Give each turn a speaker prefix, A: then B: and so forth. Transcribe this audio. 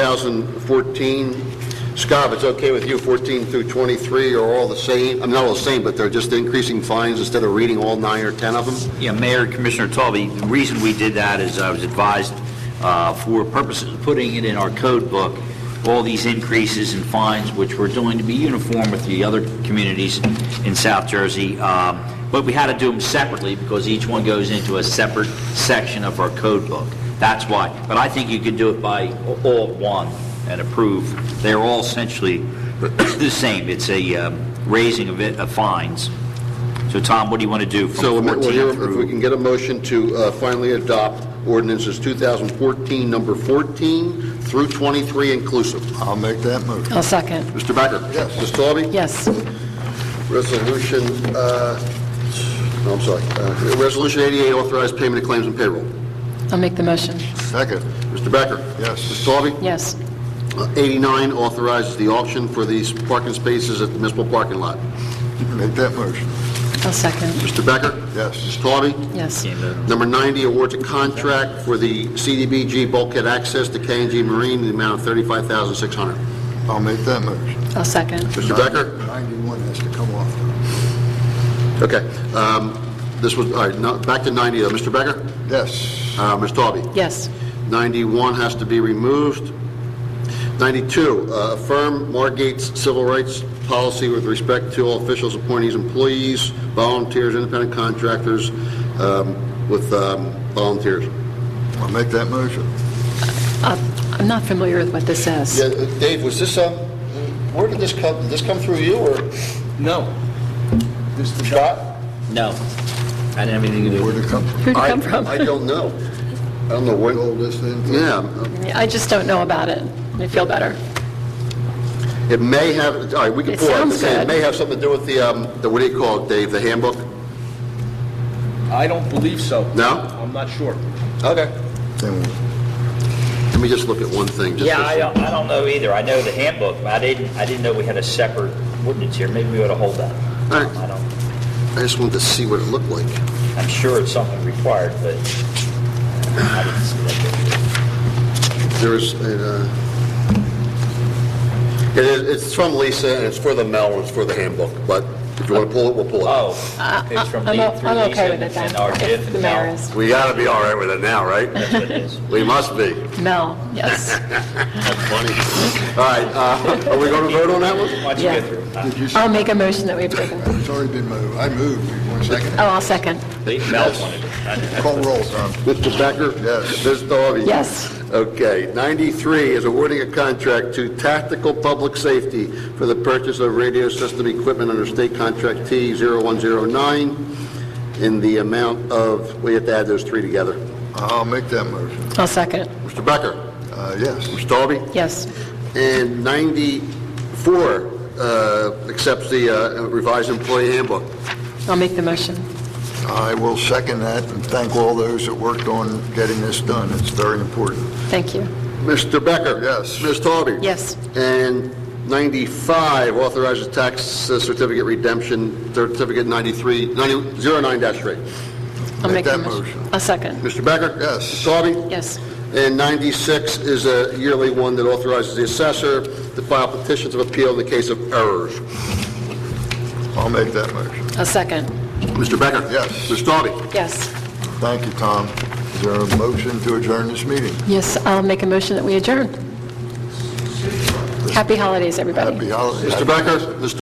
A: 2014. Scott, if it's okay with you, 14 through 23 are all the same, I'm not all the same, but they're just increasing fines instead of reading all nine or 10 of them?
B: Yeah, Mayor, Commissioner Talby, the reason we did that is I was advised uh, for purposes of putting it in our code book, all these increases in fines, which were going to be uniform with the other communities in South Jersey, um, but we had to do them separately because each one goes into a separate section of our code book. That's why. But I think you could do it by all at one and approve. They're all essentially the same. It's a um, raising of it, of fines. So Tom, what do you want to do from
A: So
B: 14
A: we'll hear
B: through?
A: if we can get a motion to uh, finally adopt ordinances 2014, number 14 through 23 inclusive.
C: I'll make that motion.
D: I'll second.
A: Mr. Becker?
C: Yes.
A: Ms. Taube?
D: Yes.
A: Resolution, uh, no, I'm sorry, Uh, Resolution 88, authorized payment of claims and payroll.
D: I'll make the motion.
C: Second,
A: Mr. Becker?
C: Yes.
A: Ms. Taube?
D: Yes.
A: Uh, 89, authorizes the auction for these parking spaces at the municipal parking lot.
C: make that motion.
D: I'll second.
A: Mr. Becker? Ms.
C: Yes,
A: Taube?
D: Yes.
A: Number 90, awards a contract for the CDBG bulkhead access to KNG Marine in the amount of $35,600.
C: I'll make that motion.
D: I'll second.
A: Mr. Becker?
C: 91 has to come off.
A: Okay. um, This was, all right, no- back to 90, though. Mr. Becker?
C: Yes,
A: Uh, Ms. Taube?
D: Yes.
A: 91 has to be removed. 92, uh, affirm Margate's civil rights policy with respect to all officials, appointees, employees, volunteers, independent contractors, um, with um, volunteers.
C: I'll make that motion.
D: Uh, I'm not familiar with what this says.
A: uh, Dave, was this, um, where did this come, did this come through you, or
E: No. This is
A: Scott?
B: No. I didn't have anything to do with
C: Where'd it come from?
D: Who'd it come from?
A: I don't know. I don't know where,
C: All this in?
A: yeah,
D: I just don't know about it. I feel better.
A: it may have, all right, we can
D: It
A: pull out,
D: sounds
A: it
D: good.
A: may have something to do with the, um, the what do you call it, Dave, the handbook?
E: it. I don't believe so.
A: No?
E: I'm not sure.
A: Okay.
C: Then we'll-
A: Let me just look at one thing, just
B: Yeah,
A: for
B: I don't, I don't know either. I know the handbook, but I didn't, I didn't know we had a separate ordinance here. Maybe we ought to hold that.
A: All right.
B: I don't,
A: I just wanted to see what it looked like.
B: I'm sure it's something required, but I didn't see that.
A: There is, a, uh, it is, it's from Lisa, and it's for the mail, and it's for the handbook, but if you want to pull it, we'll pull it.
B: Oh, it's from
D: Uh, I'm
B: Lee,
D: o-
B: through
D: I'm
B: Lisa
D: okay with it
B: and
D: then.
B: our
D: If
B: diff
D: The
B: and
D: mayor
B: now.
D: is.
A: We got to be all right with it now, right?
B: That's what it is.
A: We must be.
D: Mel, yes.
A: That's funny. All right, uh, are we going to vote on that one?
B: Why don't you
D: Yeah.
B: go through?
C: Did you,
A: Um,
D: I'll make a motion that we approve it.
C: it's already been moved. I moved. One second.
D: Oh, I'll second.
B: it? Mel wanted it. I
A: Oh.
B: didn't-
C: Call roll, Tom.
A: Mr. Becker?
C: Yes.
A: Ms. Daugherty?
D: Yes.
A: Okay, 93 is awarding a contract to Tactical Public Safety for the purchase of radio system equipment under state contract T0109 in the amount of, we have to add those three together.
C: I'll make that motion.
D: I'll second.
A: Mr. Becker?
C: Uh, yes,
A: Mr. Dalby?
D: Yes.
A: And 94 uh, accepts the uh, revised employee handbook.
D: I'll make the motion.
C: I will second that and thank all those that worked on getting this done. It's very important.
D: Thank you.
A: Mr. Becker?
C: Yes.
A: Ms. Dalby?
D: Yes.
A: And 95 authorizes tax certificate redemption, certificate 93, 09-3.
D: I'll
C: Make
D: make the
C: that
D: motion.
C: motion.
D: I'll second.
A: Mr. Becker?
C: Yes.
A: Ms. Taube?
D: Yes.
A: And 96 is a yearly one that authorizes the assessor to file petitions of appeal in the case of errors.
C: I'll make that motion.
D: I'll second.
A: Mr. Becker?
C: Yes.
A: Ms. Taube?
D: Yes.
C: Thank you, Tom. Is there a motion to adjourn this meeting?
D: Yes, I'll make a motion that we adjourn. Happy holidays, everybody.
C: Happy holidays.
A: Mr. Becker? Ms.